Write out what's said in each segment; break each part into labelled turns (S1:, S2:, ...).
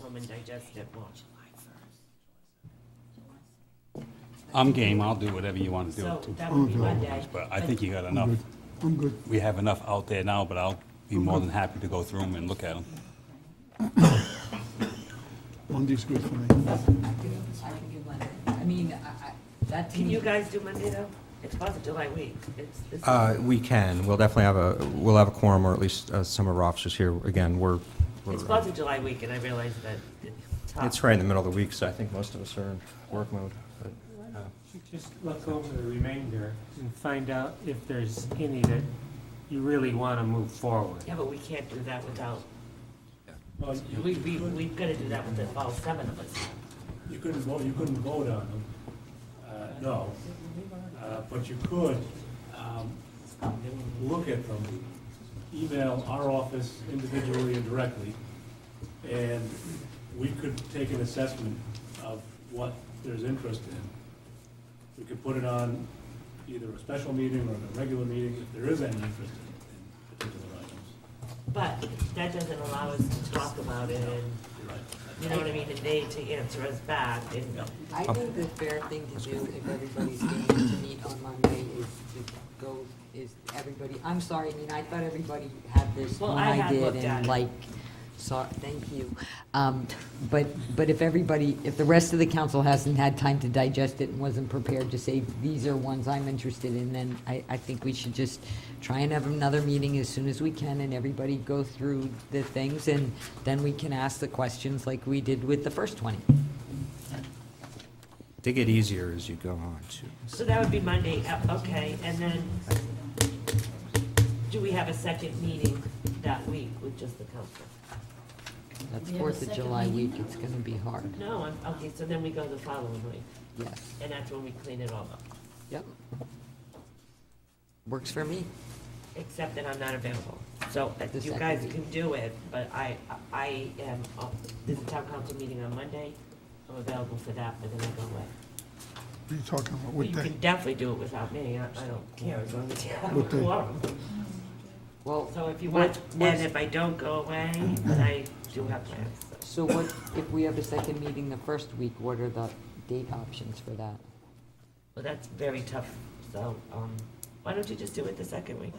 S1: Common Digestive Watch.
S2: I'm game, I'll do whatever you want to
S1: So
S2: do,
S1: that would be Monday.
S2: but I think you got
S3: I'm
S2: enough,
S3: good. I'm good.
S2: we have enough out there now, but I'll be more than happy to go through them and look at them.
S3: Monday's good for me.
S4: I can do Monday. I mean, I, I, that to
S1: Can
S4: me.
S1: you guys do Monday though? It's Fourth of July week. It's, it's.
S5: Uh, We can, we'll definitely have a, we'll have a quorum, or at least uh, some of our officers here. Again, we're, we're-
S1: It's Fourth of July week and I realize that it's tough.
S5: it's right in the middle of the week, so I think most of us are in work mode. but-
S6: You Just look over the remainder and find out if there's any that you really want to move forward.
S1: Yeah, but we can't do that without,
S7: Well, you-
S1: we, we, we've gotta do that with the, all seven of us.
S7: you couldn't vote, you couldn't vote on them, uh, no. Uh, But you could um, look at them, email our office individually and directly, and we could take an assessment of what there's interest in. We could put it on either a special meeting or a regular meeting, if there is any interest in in particular items.
S1: But that doesn't allow us to talk about it and,
S7: You're right.
S1: you know what I mean, and they to answer us back and.
S4: I think the fair thing to do if everybody's going to meet on Monday is to go, is everybody, I'm sorry, I mean, I thought everybody had this
S1: Well,
S4: when
S1: I
S4: I
S1: have
S4: did
S1: looked at
S4: and
S1: it.
S4: like, sorry, thank you. Um, But, but if everybody, if the rest of the council hasn't had time to digest it and wasn't prepared to say, these are ones I'm interested in, then I, I think we should just try and have another meeting as soon as we can and everybody go through the things and then we can ask the questions like we did with the first twenty.
S5: They get easier as you go on, too.
S1: So that would be Monday, uh, okay, and then, do we have a second meeting that week with just the council?
S4: That's
S8: We have a
S4: Fourth of
S8: second
S4: July
S8: meeting
S4: week, it's gonna be hard,
S1: No, I'm, okay, so then we go the following week,
S4: yes,
S1: and that's when we clean it all up,
S4: yep. Works for me.
S1: except that I'm not available. So uh,
S4: The
S1: you
S4: second
S1: guys
S4: meeting.
S1: can do it, but I, I am, uh, there's a town council meeting on Monday, I'm available for that, but then I go away.
S3: What are you talking about?
S1: But
S3: What
S1: You
S3: day?
S1: can definitely do it without me, I, I don't care, as long as you have a
S3: What day?
S1: quorum.
S4: Well,
S1: So if you
S4: What-
S1: want,
S4: what's-
S1: and if I don't go away,
S3: Mm-hmm.
S1: then I do have plans, so.
S4: so what, if we have a second meeting the first week, what are the date options for that?
S1: Well, that's very tough, so, um, why don't you just do it the second week?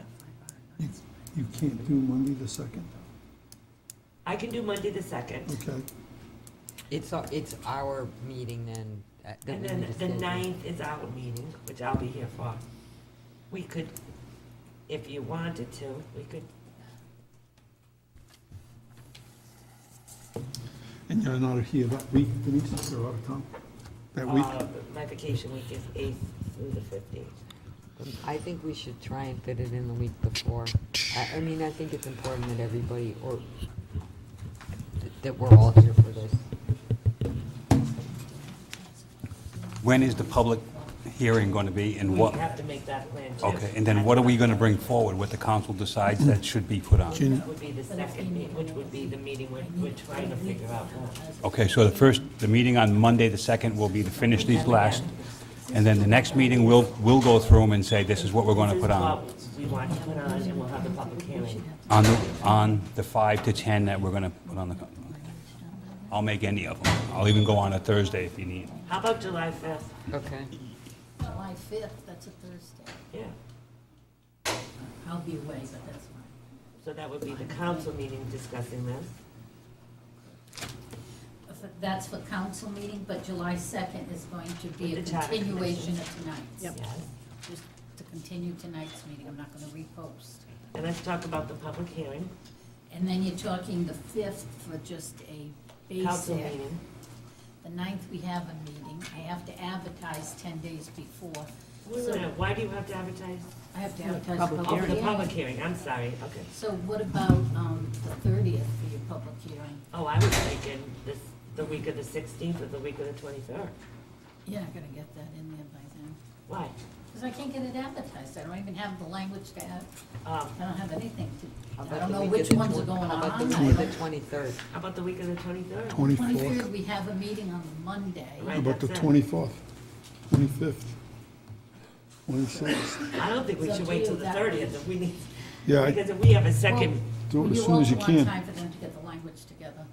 S3: You you can't do Monday the second,
S1: I can do Monday the second,
S3: okay?
S4: It's, our- it's our meeting then. uh, that
S1: and
S4: we
S1: then
S4: need to
S1: the
S4: schedule.
S1: ninth is our meeting, which I'll be here for. We could, if you wanted to, we could,
S3: And you're not here that week, Denise, you're out of town that week?
S1: uh, my vacation week is eighth through the fifteenth.
S4: I think we should try and fit it in the week before. I, I mean, I think it's important that everybody, or, th- that we're all here for this.
S2: When is the public hearing going to be and
S1: We
S2: what?
S1: have to make that plan too.
S2: Okay, and then what are we going to bring forward, what the council decides that should be put on?
S1: That would be the second meeting, which would be the meeting we're, we're trying to figure out more.
S2: Okay, so the first, the meeting on Monday, the second, will be to finish these last, and then the next meeting, we'll, we'll go through them and say, this is what we're going to put on,
S1: This is what we want to put on, and we'll have the public hearing.
S2: on the, on the five to 10 that we're going to put on the, co- I'll make any of them. I'll even go on a Thursday if you need.
S1: How about July fifth?
S4: Okay.
S8: July fifth, that's a Thursday.
S1: Yeah,
S8: I'll be away, but that's fine.
S1: so that would be the council meeting discussing this.
S8: If That's for council meeting, but July second is going to be a
S1: With the charter
S8: continuation of tonight's.
S1: Yes.
S8: Just to continue tonight's meeting, I'm not gonna repost.
S1: And let's talk about the public hearing,
S8: And then you're talking the fifth for just a
S1: council
S8: basic.
S1: meeting.
S8: The ninth, we have a meeting. I have to advertise ten days before.
S1: Wait a
S8: So
S1: minute, why do you have to advertise?
S8: I have to advertise.
S4: Public
S1: Oh, for the public hearing, I'm sorry, okay.
S8: So what about, um, the thirtieth for your public hearing?
S1: Oh, I was thinking this, the week of the sixteenth or the week of the twenty-third.
S8: You're not gonna get that in there by then.
S1: Why?
S8: Because I can't get it advertised, I don't even have the language to add,
S1: Um,
S8: I don't have anything
S4: How
S8: to,
S4: about
S8: I don't
S4: the
S8: know
S4: week of
S8: which
S4: the
S8: ones are
S4: twen-
S8: going
S4: How about the
S8: on.
S4: week of the twenty-third?
S1: how about the week of the twenty-third?
S3: Twenty-fourth,
S8: Twenty-third, we have a meeting on Monday.
S1: Right.
S3: about the
S1: that's it.
S3: twenty-fourth, twenty-fifth, twenty-sixth.
S1: I don't think we
S8: It's up
S1: should
S8: to
S1: wait
S8: you
S1: till the
S8: that
S1: thirtieth
S8: week.
S1: if we need,
S3: Yeah, I-
S1: because if we have a second
S3: do it as soon as you
S8: You all
S3: can.
S8: want time for them to get the language together.